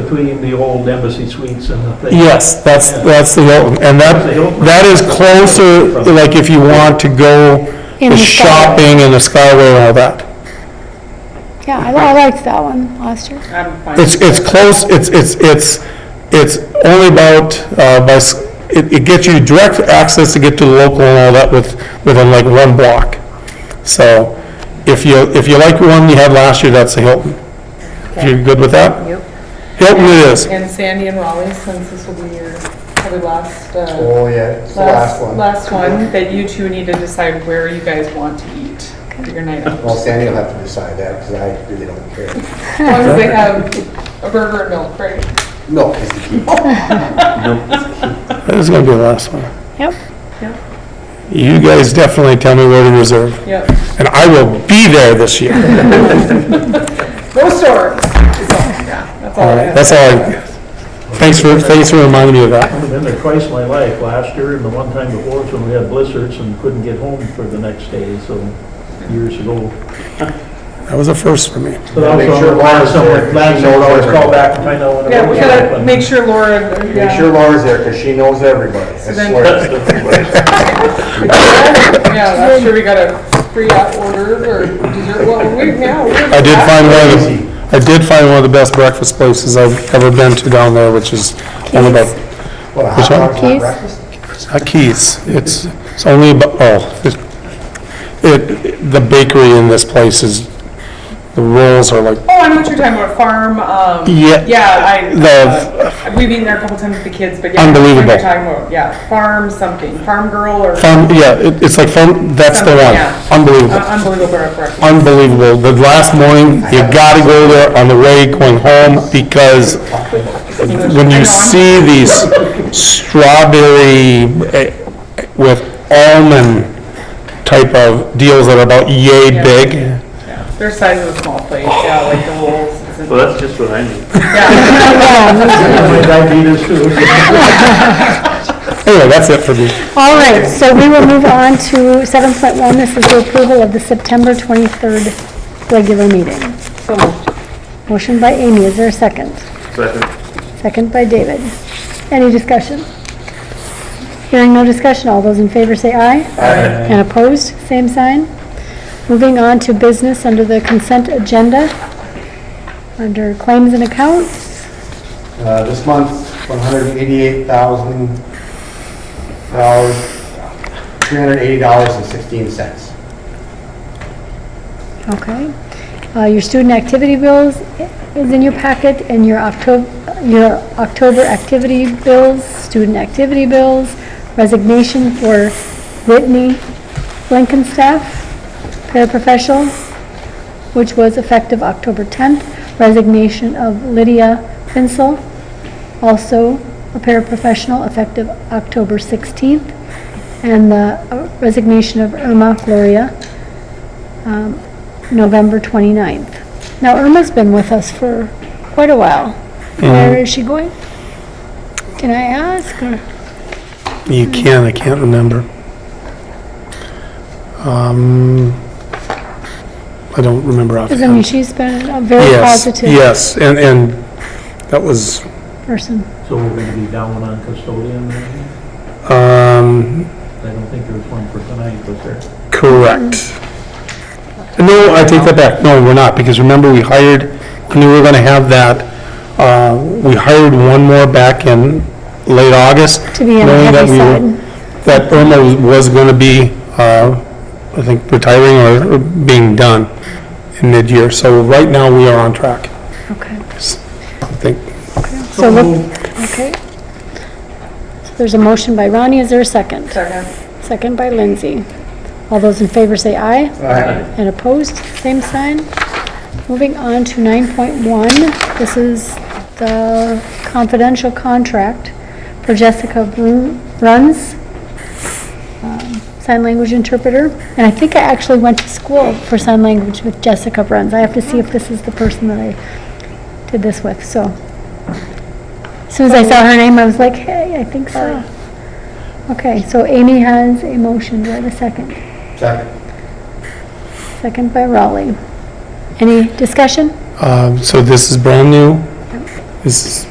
between the old embassy suites and the thing. Yes, that's, that's the Hilton, and that, that is closer, like if you want to go In to the shopping and the Skyway and all that. Yeah, I, I liked that one last year. I'm fine. It's, it's close, it's, it's, it's, it's only about, uh, by, s- it, it gets you direct access to get to the local and all that with, within like one block. So, if you, if you like the one you had last year, that's the Hilton. If you're good with that? Yep. Hilton it is. And Sandy and Raleigh, since this will be your probably last, uh, Oh, yeah, it's the last, last one. last one, that you two need to decide where you guys want to eat for your night out. Well, Sandy will have to decide that, because I really don't care. As long as they have a burger and milk, right? No, is the key. That is gonna be the last one. Yep. You guys definitely tell me where to reserve. Yep. and I will be there this year. No stores. That's all, yeah, that's all. All I right, have. that's all I, thanks for, thanks for reminding me of that. I've been there twice in my life, last year and the one time before, when we had blizzards and couldn't get home for the next day, so years ago. That was a first for me. So that was Make sure on the plan, Laura's somewhere, there. last She knows always everything. call back and find out when it Yeah, we was gotta happening. make sure Laura, Make yeah. sure Laura's there, because she knows everybody, So I then- swear. Yeah, that's true, we got a free out order or dessert, well, we, yeah. we- I did find one of the, I did find one of the best breakfast places I've ever been to down there, which is only about, What, a hot Which one? dog's not Keys? breakfast? it's not uh, Keith's, it's, it's only about, oh, it- it, the bakery in this place is, the rolls are like, Oh, I know what you're talking about, farm, um. Yeah. Yeah, The- I, uh, we've been there a couple times with the kids, but yeah. I know what Unbelievable. You're talking about, yeah, farm something, farm girl or fun, yeah, it- it's like fun, that's the one, Yeah. unbelievable. Uh, unbelievable breakfast. unbelievable. The last morning, you gotta go there on the way going home because when you see these strawberry eh, with almond type of deals that are about yay Yeah. big, Their size is a small plate, yeah, like the rolls. it's in- Well, that's just what I need. Yeah, My diabetes too. anyway, that's it for me. All right, so we will move on to seven point one. This is the approval of the September twenty-third regular meeting. Motion by Amy, is there a second? Second. Second by David. Any discussion? Hearing no discussion, all those in favor say aye. Aye. And opposed, same sign. Moving on to business under the consent agenda, under claims and accounts. Uh, This month, $188,000, $380.16. Okay. Uh, Your student activity bills is in your packet, and your October, your October activity bills, student activity bills, resignation for Whitney Blankenstaff, paraprofessional, which was effective October 10th, resignation of Lydia Pinsel, also a paraprofessional effective October 16th, and the uh, resignation of Irma Gloria, um, November 29th. Now Irma's been with us for quite a while. Where is she going? Can I ask? or- You can, I can't remember. Um, I don't remember Because I mean, offhand. she's been a very Yes, positive yes, and, and that was, person. So we're gonna be down on custodian, maybe? um, I don't think there's one for tonight, was there? Correct. No, I take that back. No, we're not, because remember, we hired, when we were gonna have that, uh, we hired one more back in late August. To be on the knowing that heavy we were- side. That Irma was- was gonna be, uh, I think, retiring or- or being done in mid-year. So right now, we are on track, Okay. I think. So look, okay. So There's a motion by Ronnie. Is there a second? second. Second by Lindsay. All those in favor say aye. Aye. And opposed, same sign. Moving on to 9.1, this is the confidential contract for Jessica Brun- Bruns, um, sign language interpreter. And I think I actually went to school for sign language with Jessica Bruns. I have to see if this is the person that I did this with, so. As Soon as I saw her name, I was like, hey, I think so. Okay, so Amy has a motion. Do I have a second? Second. Second by Raleigh. Any discussion? Uh, Um, So this is brand new. This is